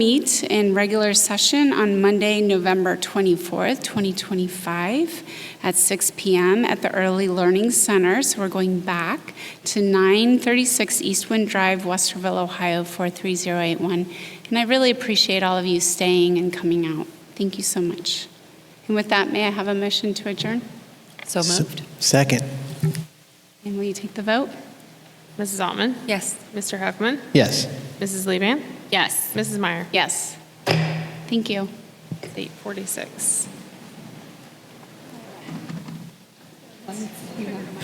meet in regular session on Monday, November 24th, 2025, at 6 PM at the Early Learning Center. So we're going back to 936 Eastwind Drive, Westerville, Ohio, 43081. And I really appreciate all of you staying and coming out. Thank you so much. And with that, may I have a motion to adjourn? So moved. Second. And will you take the vote? Mrs. Altman? Yes. Mr. Huffman? Yes. Mrs. Levan? Yes. Mrs. Meyer? Yes. Thank you. It's 846.